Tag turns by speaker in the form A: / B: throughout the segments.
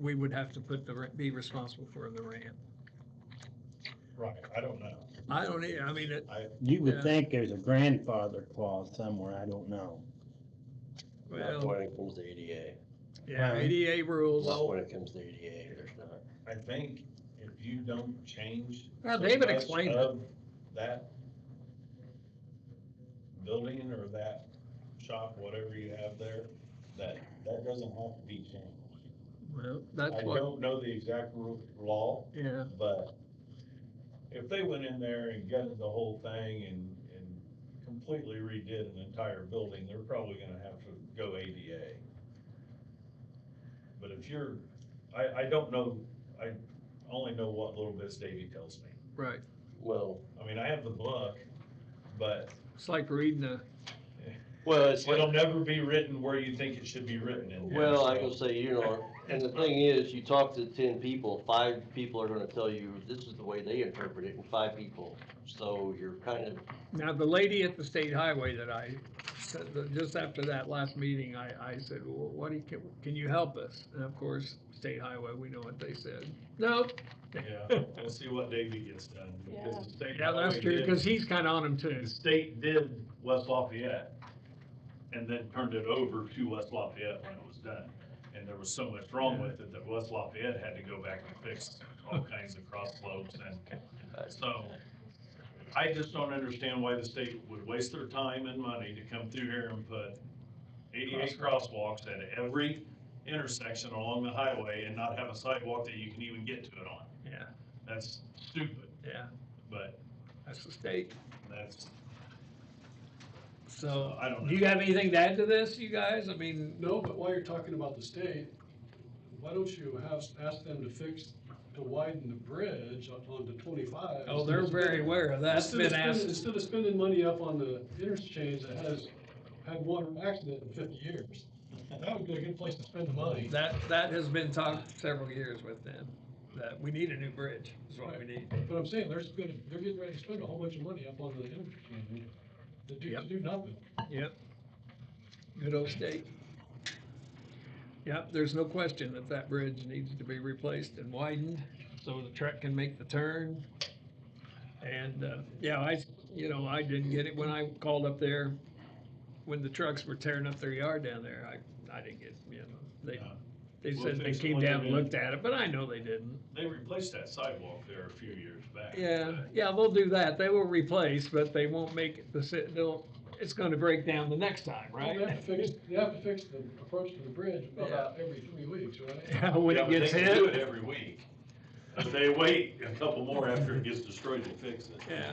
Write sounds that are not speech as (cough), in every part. A: we would have to put the, ra- be responsible for the ramp.
B: Right, I don't know.
A: I don't, e- I mean, it,
C: You
A: Yeah.
C: would think there's a grandfather clause somewhere, I don't know.
D: Not
A: well,
D: when it comes to ADA,
A: yeah, ADA rules.
D: not when it comes to ADA, there's not.
B: I think if you don't change.
A: Well,
B: so
A: David
B: much
A: explained it.
B: of That building or that shop, whatever you have there, that, that doesn't have to be changed.
A: Well,
B: I
A: that's what,
B: don't know the exact ru- law,
A: yeah,
B: but if they went in there and gutted the whole thing and, and completely redid an entire building, they're probably gonna have to go ADA. But if you're, I, I don't know, I only know what little bit Davy tells me.
A: right.
D: Well,
B: I mean, I have the book, but
A: It's like reading a,
D: well, it's like,
B: it'll never be written where you think it should be written in. here,
D: well, I
B: so-
D: can say, you know, and the thing is, you talk to ten people, five people are gonna tell you, this is the way they interpret it, and five people. So you're kind of,
A: now the lady at the state highway that I said, that just after that last meeting, I, I said, well, what do you, can, can you help us? And of course, state highway, we know what they said. Nope.
B: Yeah, we'll see what Davy gets done. because the state
A: Yeah, that's
B: highway
A: true,
B: did-
A: cause he's kinda on them too.
B: The state did West Lafayette and then turned it over to West Lafayette when it was done. And there was so much wrong with it that West Lafayette had to go back and fix all kinds of cross slopes and so. I just don't understand why the state would waste their time and money to come through here and put eighty-eight crosswalks at every intersection along the highway and not have a sidewalk that you can even get to it on.
A: Yeah,
B: That's stupid,
A: yeah,
B: but
A: that's the state.
B: that's,
A: So,
B: I don't know.
A: do you have anything to add to this, you guys? I mean,
E: No, but while you're talking about the state, why don't you have, ask them to fix, to widen the bridge up onto twenty-five?
A: oh, they're very aware of that. That's
E: Instead of
A: been
E: spending-
A: asked.
E: Instead of spending money up on the interchange that has had one accident in fifty years, that would be a good place to spend the money.
A: That, that has been talked several years with them, that we need a new bridge, is what we need.
E: But I'm saying, they're spending, they're getting ready to spend a whole bunch of money up on the interchange to do, to
A: Yep.
E: do nothing.
A: Yep. Good old state. Yep, there's no question that that bridge needs to be replaced and widened so the truck can make the turn. And, uh, yeah, I, you know, I didn't get it when I called up there, when the trucks were tearing up their yard down there, I, I didn't get, you know, they,
B: uh,
A: they
B: We'll
A: said they
B: fix it
A: came
B: when they
A: down and
B: do.
A: looked at it, but I know they didn't.
B: They replaced that sidewalk there a few years back.
A: Yeah, yeah, they'll do that, they will replace, but they won't make it, the, sit- they'll, it's gonna break down the next time, right?
E: They have
A: (laughs)
E: to fix, they have to fix the approach to the bridge about every three weeks, right?
A: (laughs) Yeah, when
B: Yeah,
A: it
B: but they
A: gets
B: can Do it
A: hit.
B: every week. If they wait a couple more after it gets destroyed, we'll fix it.
A: Yeah.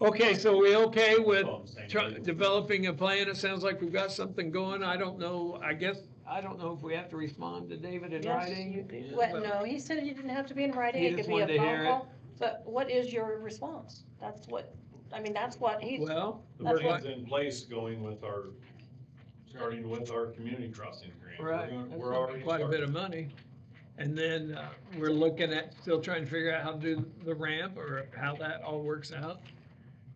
A: Okay, so we okay with
B: Oh, I'm saying-
A: tr- developing a plan? It sounds like we've got something going. I don't know, I guess, I don't know if we have to respond to David in
F: Yes,
A: writing.
F: you-
A: Yeah,
F: What,
A: well,
F: no, he said you didn't have to be in writing,
A: He
F: it
A: just
F: could be
A: wanted to
F: a
A: hear
F: phone
A: it.
F: call, but what is your response? That's what, I mean, that's what he's,
A: Well,
B: The
F: That's
B: plan's in place going with our, starting with our community crossing grant. We're
A: right,
B: gonna-
A: that's
B: We're
A: gonna be
B: already
A: quite a bit
B: started.
A: of money. And then, uh, we're looking at, still trying to figure out how to do the ramp or how that all works out.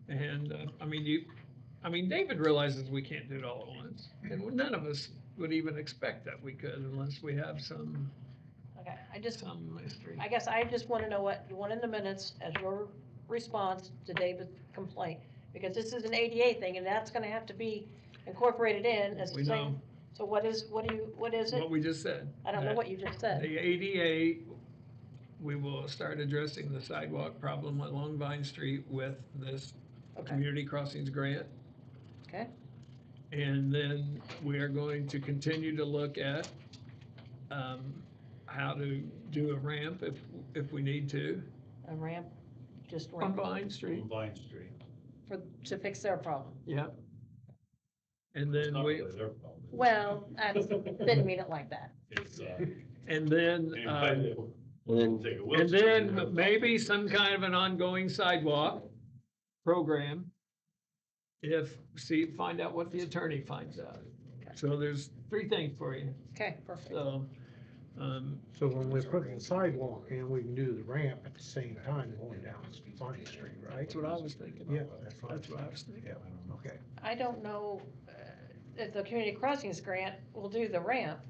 A: And, uh, I mean, you, I mean, David realizes we can't do it all at once. And none of us would even expect that we could unless we have some
F: okay, I just,
A: some mystery.
F: I guess I just wanna know what you want in the minutes as your response to David's complaint. Because this is an ADA thing, and that's gonna have to be incorporated in as
A: We
F: the
A: know
F: same, so what is, what do you, what is it?
A: what we just said.
F: I don't know what you just said.
A: The ADA, we will start addressing the sidewalk problem along Vine Street with this
F: Okay,
A: community crossings grant.
F: Okay.
A: And then we are going to continue to look at, um, how to do a ramp if, if we need to
F: a ramp, just
A: on
F: ramp,
A: Vine Street,
B: On Vine Street.
F: for, to fix their problem.
A: yep. And
B: It's
A: then
B: not
A: we,
B: really their problem.
F: Well, I didn't mean it like that.
A: (laughs)
B: It's, uh,
A: and then, um,
B: anybody that will
D: and then
B: take a
A: And
B: Wilson-
A: then maybe some kind of an ongoing sidewalk program. If, see, find out what the attorney finds out. So there's three things for you,
F: Okay, perfect.
A: so, um,
G: So when we're putting the sidewalk in, we can do the ramp at the same time going down Vine Street, right?
A: that's what I was thinking.
G: Yeah, that's what I
A: That's
G: was
A: what I was thinking.
G: Yeah, okay.
F: I don't know, uh, if the community crossings grant will do the ramp,